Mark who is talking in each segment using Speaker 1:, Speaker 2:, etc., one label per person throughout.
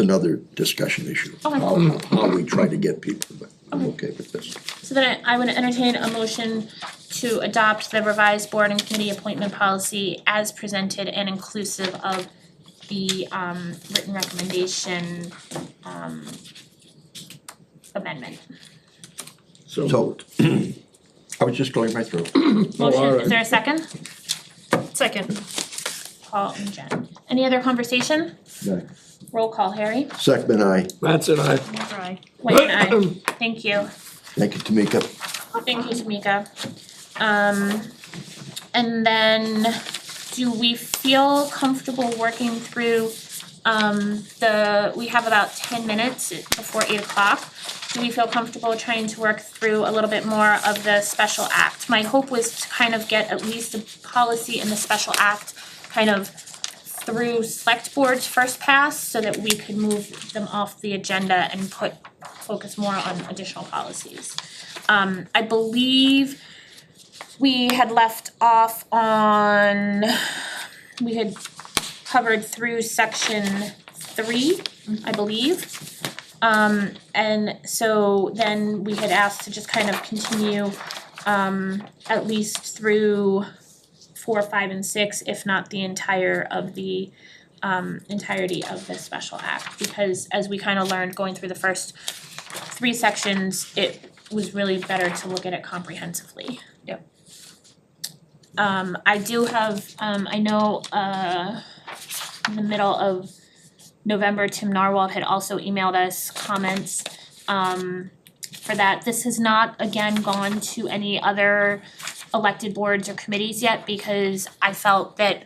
Speaker 1: it's another discussion issue.
Speaker 2: Okay.
Speaker 1: How, how we try to get people, but I'm okay with this.
Speaker 2: So then I I would entertain a motion to adopt the revised board and committee appointment policy as presented and inclusive of the um written recommendation um amendment.
Speaker 3: So.
Speaker 1: So, I was just going right through.
Speaker 2: Motion, is
Speaker 3: alright.
Speaker 2: there a second?
Speaker 4: Second.
Speaker 2: Paul and Jen. Any other conversation?
Speaker 1: No.
Speaker 2: Roll call, Harry.
Speaker 1: Second, I,
Speaker 3: That's it, I.
Speaker 4: Right.
Speaker 2: White and I. Thank you.
Speaker 1: thank you, Tamika.
Speaker 2: Thank you, Tamika. Um, and then, do we feel comfortable working through, um, the, we have about ten minutes before eight o'clock. Do we feel comfortable trying to work through a little bit more of the special act? My hope was to kind of get at least a policy in the special act kind of through select board's first pass so that we could move them off the agenda and put, focus more on additional policies. Um, I believe we had left off on, we had covered through section three, I believe. Um, and so then we had asked to just kind of continue, um, at least through four, five, and six, if not the entire of the, um, entirety of the special act. Because as we kind of learned going through the first three sections, it was really better to look at it comprehensively.
Speaker 4: Yep.
Speaker 2: Um, I do have, um, I know, uh, in the middle of November, Tim Narwhal had also emailed us comments, um, for that. This has not, again, gone to any other elected boards or committees yet because I felt that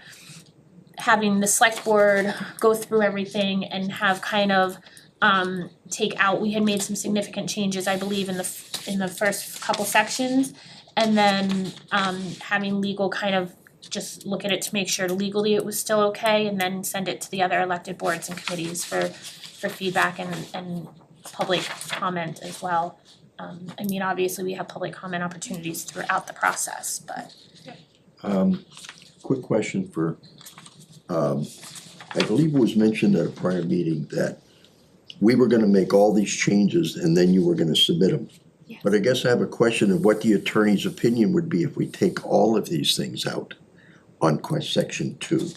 Speaker 2: having the select board go through everything and have kind of, um, take out, we had made some significant changes, I believe, in the, f- in the first couple sections. And then, um, having legal kind of just look at it to make sure legally it was still okay, and then send it to the other elected boards and committees for, for feedback and, and public comment as well. Um, I mean, obviously, we have public comment opportunities throughout the process, but
Speaker 1: Um, quick question for, um, I believe it was mentioned at a prior meeting that we were gonna make all these changes and then you were gonna submit them.
Speaker 2: Yes.
Speaker 1: But I guess I have a question of what the attorney's opinion would be if we take all of these things out on quest section two.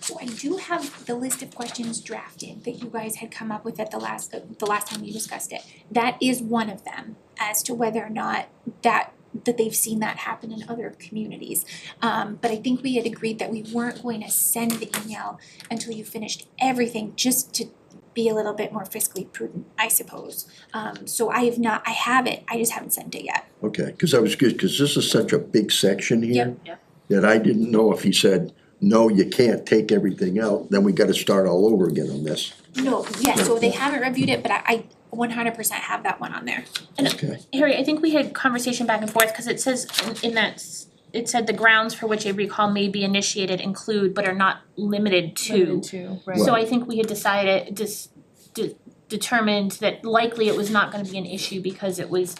Speaker 5: So I do have the list of questions drafted that you guys had come up with at the last, uh, the last time we discussed it. That is one of them, as to whether or not that, that they've seen that happen in other communities. Um, but I think we had agreed that we weren't going to send the email until you finished everything, just to be a little bit more fiscally prudent, I suppose. Um, so I have not, I have it, I just haven't sent it yet.
Speaker 1: Okay, cause I was good, cause this is such a big section here.
Speaker 4: Yep.
Speaker 1: That I didn't know if he said, no, you can't take everything out, then we gotta start all over again on this,
Speaker 5: No, yeah, so they haven't reviewed it, but I, I one hundred percent have that one on there.
Speaker 2: And-
Speaker 1: okay?
Speaker 2: Harry, I think we had conversation back and forth, cause it says in- in that, s- it said the grounds for which a recall may be initiated include but are not limited to.
Speaker 4: Two,
Speaker 2: So I think we had decided, dis- de- determined that likely it was not gonna be an issue because it was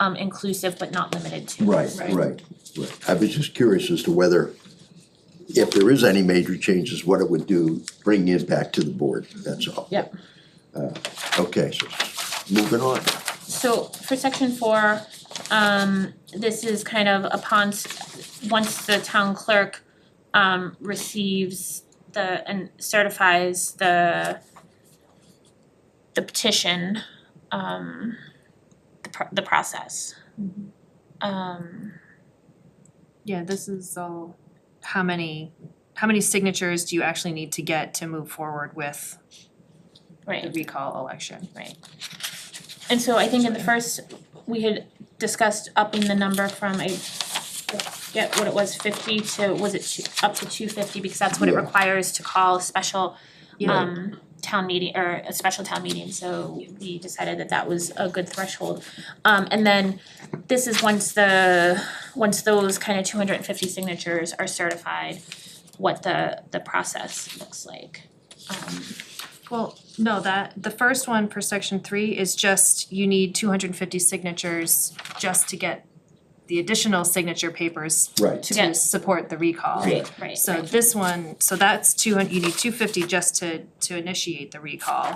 Speaker 2: um inclusive but not limited to.
Speaker 1: Right,
Speaker 4: Right.
Speaker 1: right, right. I was just curious as to whether, if there is any major changes, what it would do, bringing it back to the board, that's all.
Speaker 2: Yep.
Speaker 1: Uh, Okay, so moving on.
Speaker 2: So for section four, um this is kind of upon, s- once the town clerk um receives the and certifies the the petition, um the pro- the process.
Speaker 4: Mhm.
Speaker 2: Um
Speaker 4: Yeah, this is all, how many, how many signatures do you actually need to get to move forward with
Speaker 2: right.
Speaker 4: the recall election?
Speaker 2: And so I think in the first, we had discussed upping the number from a, get what it was fifty to, was it two, up to two fifty? Because that's what it
Speaker 1: Yeah.
Speaker 2: requires to call a special
Speaker 4: Yeah.
Speaker 2: um town meeting or a special town meeting, so we decided that that was a good threshold. Um and then this is once the, once those kind of two hundred and fifty signatures are certified, what the the process looks like. Um
Speaker 4: Well, no, that, the first one for section three is just you need two hundred and fifty signatures just to get the additional signature papers
Speaker 1: Right,
Speaker 2: Yeah.
Speaker 4: to support the recall.
Speaker 1: Right.
Speaker 2: Right,
Speaker 4: So
Speaker 2: right.
Speaker 4: this one, so that's two hun- you need two fifty just to to initiate the recall.